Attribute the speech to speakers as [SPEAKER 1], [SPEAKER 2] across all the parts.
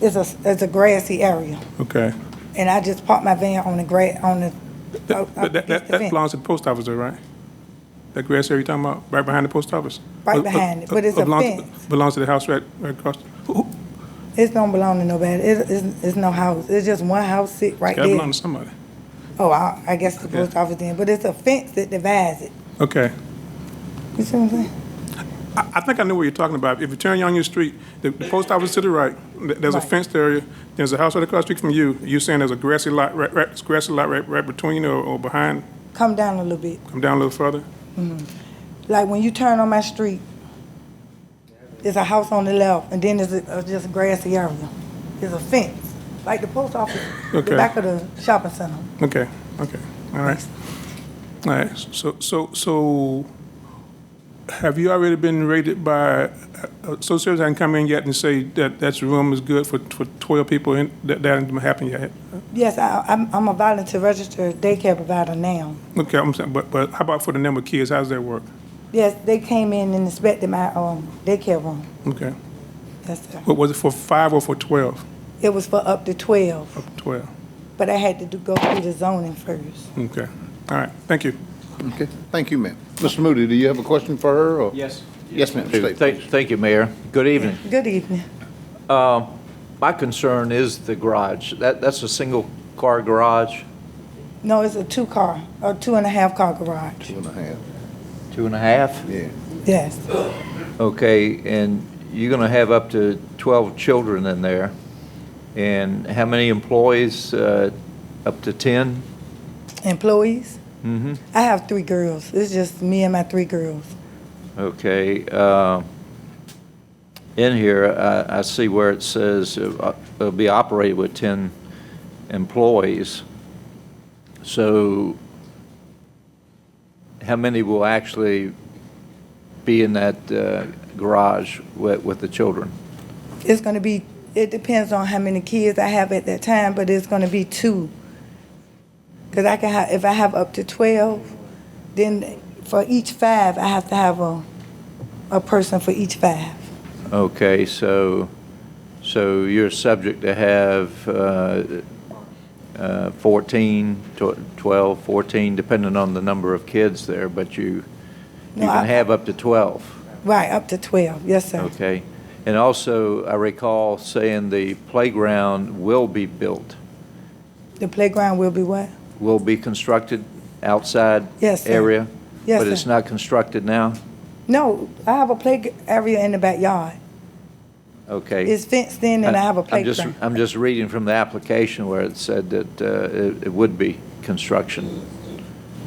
[SPEAKER 1] It's a, it's a grassy area,
[SPEAKER 2] Okay.
[SPEAKER 1] and I just parked my van on the gra, on the. oh,
[SPEAKER 2] That- But that, that, that belongs to the post office though, right? That grass area you're talking about, right behind the post office?
[SPEAKER 1] Right
[SPEAKER 2] Or- or-
[SPEAKER 1] behind it, but it's
[SPEAKER 2] or
[SPEAKER 1] a
[SPEAKER 2] belongs-
[SPEAKER 1] fence.
[SPEAKER 2] Belongs to the house right, right across, who- who-
[SPEAKER 1] It don't belong to nobody, it, it's, it's no house, it's just one house sit right
[SPEAKER 2] that
[SPEAKER 1] there.
[SPEAKER 2] belongs to somebody.
[SPEAKER 1] Oh, I, I guess the
[SPEAKER 2] Okay.
[SPEAKER 1] post office then, but it's a fence that divides it,
[SPEAKER 2] Okay.
[SPEAKER 1] you see what I'm saying?
[SPEAKER 2] I, I think I know what you're talking about. If you turn on your street, the, the post office to the right, th- there's a
[SPEAKER 1] Right.
[SPEAKER 2] fenced area, there's a house right across the street from you. You're saying there's a grassy lot, right, right, grassy lot right, right between or, or behind,
[SPEAKER 1] Come down a little bit,
[SPEAKER 2] come down a little further?
[SPEAKER 1] like when you turn on my street, there's a house on the left, and then there's a, a just grassy area. There's a fence, like the post office,
[SPEAKER 2] Okay.
[SPEAKER 1] the back of the shopping center.
[SPEAKER 2] Okay, okay, all right. All right, so, so, so have you already been rated by, uh, so service hasn't come in yet and say that that room is good for, for 12 people and that, that hasn't happened yet?
[SPEAKER 1] Yes, I, I'm, I'm a volunteer registered daycare provider now.
[SPEAKER 2] Okay, I'm saying, but, but how about for the number of kids, how does that work?
[SPEAKER 1] Yes, they came in and inspected my, um, daycare room.
[SPEAKER 2] Okay,
[SPEAKER 1] Yes, sir.
[SPEAKER 2] what was it for five or for 12?
[SPEAKER 1] It was for up to twelve,
[SPEAKER 2] Up to 12,
[SPEAKER 1] but I had to do, go through the zoning first.
[SPEAKER 2] okay, all right, thank you.
[SPEAKER 3] Okay, thank you, ma'am. Mr. Moody, do you have a question for her, or?
[SPEAKER 4] Yes.
[SPEAKER 3] Yes, ma'am, state.
[SPEAKER 4] Thank, thank you, Mayor. Good evening. Um,
[SPEAKER 1] Good evening.
[SPEAKER 4] My concern is the garage. That, that's a single-car garage,
[SPEAKER 1] No, it's a two-car, or two and a half car garage.
[SPEAKER 3] Two and a half,
[SPEAKER 4] two and a half?
[SPEAKER 3] yeah.
[SPEAKER 1] Yes,
[SPEAKER 4] Okay, and you're going to have up to 12 children in there. And how many employees? Uh, Up to 10?
[SPEAKER 1] employees. I have three girls. It's just me and my three girls.
[SPEAKER 4] Okay. uh, In here, I, I see where it says uh, it'll be operated with 10 employees. So how many will actually be in that uh, garage with, with the children?
[SPEAKER 1] It's gonna be, it depends on how many kids I have at that time, but it's gonna be two. Cause I can have, if I have up to twelve, then for each five, I have to have a, a person for each five.
[SPEAKER 4] Okay, so, so you're subject to have uh, uh, 14, tw- 12, 14, depending on the number of kids there, but you, you
[SPEAKER 1] No, I-
[SPEAKER 4] can have up to 12,
[SPEAKER 1] Right, up to twelve, yes, sir.
[SPEAKER 4] okay? And also, I recall saying the playground will be built,
[SPEAKER 1] The playground will be what?
[SPEAKER 4] will be constructed outside
[SPEAKER 1] Yes, sir.
[SPEAKER 4] area?
[SPEAKER 1] Yes,
[SPEAKER 4] But it's
[SPEAKER 1] sir.
[SPEAKER 4] not constructed now?
[SPEAKER 1] No, I have a play area in the backyard.
[SPEAKER 4] Okay.
[SPEAKER 1] It's fenced in and I have a
[SPEAKER 4] I'm just-
[SPEAKER 1] playground.
[SPEAKER 4] I'm just reading from the application where it said that uh, it it would be construction,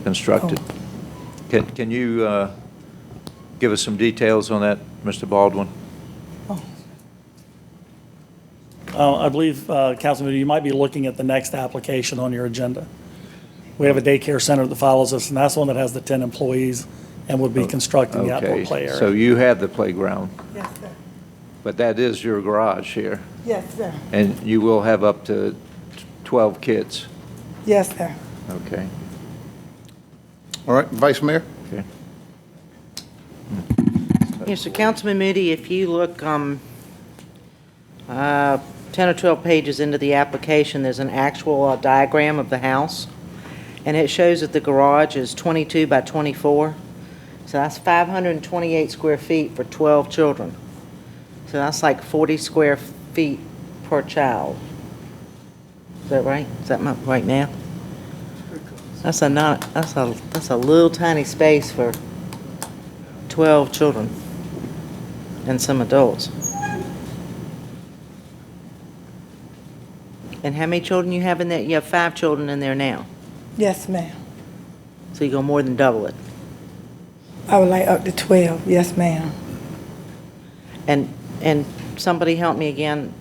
[SPEAKER 4] constructed.
[SPEAKER 1] Oh.
[SPEAKER 4] Can can you uh, give us some details on that, Mr. Baldwin?
[SPEAKER 5] Uh, I believe, uh, Councilman, you might be looking at the next application on your agenda. We have a daycare center that follows us, and that's one that has the 10 employees and would be constructing the outdoor play
[SPEAKER 4] Oh, Okay, so
[SPEAKER 5] area.
[SPEAKER 4] you have the playground,
[SPEAKER 1] Yes, sir.
[SPEAKER 4] but that is your garage here,
[SPEAKER 1] Yes, sir.
[SPEAKER 4] and you will have up to 12 kids.
[SPEAKER 1] Yes, sir.
[SPEAKER 4] Okay.
[SPEAKER 3] All right, Vice Mayor?
[SPEAKER 4] Okay.
[SPEAKER 6] Yes, so Councilman Moody, if you look um, uh, 10 or 12 pages into the application, there's an actual uh, diagram of the house, and it shows that the garage is 22 by 24, so that's 528 square feet for 12 children. So that's like 40 square feet per child. Is that right? Is that my, right now? That's a not, that's a, that's a little tiny space for 12 children and some adults. And how many children you have in there? You have five children in there now,
[SPEAKER 1] Yes, ma'am.
[SPEAKER 6] so you go more than double it.
[SPEAKER 1] I would like up to twelve, yes, ma'am.
[SPEAKER 6] And, and somebody help me again,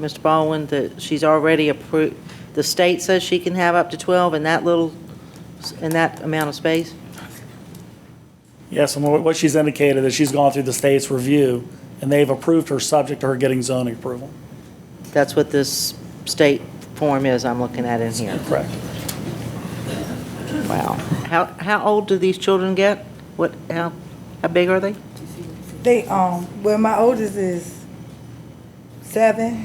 [SPEAKER 6] Mr. Baldwin, that she's already approved, the state says she can have up to 12 in that little, in that amount of space?
[SPEAKER 5] Yes, and what what she's indicated is she's gone through the state's review, and they've approved her subject to her getting zoning approval.
[SPEAKER 6] That's what this state form is I'm looking at in here.
[SPEAKER 5] Correct.
[SPEAKER 6] Wow. How, how old do these children get? What, how, how big are they?
[SPEAKER 1] They, um, well, my oldest is seven,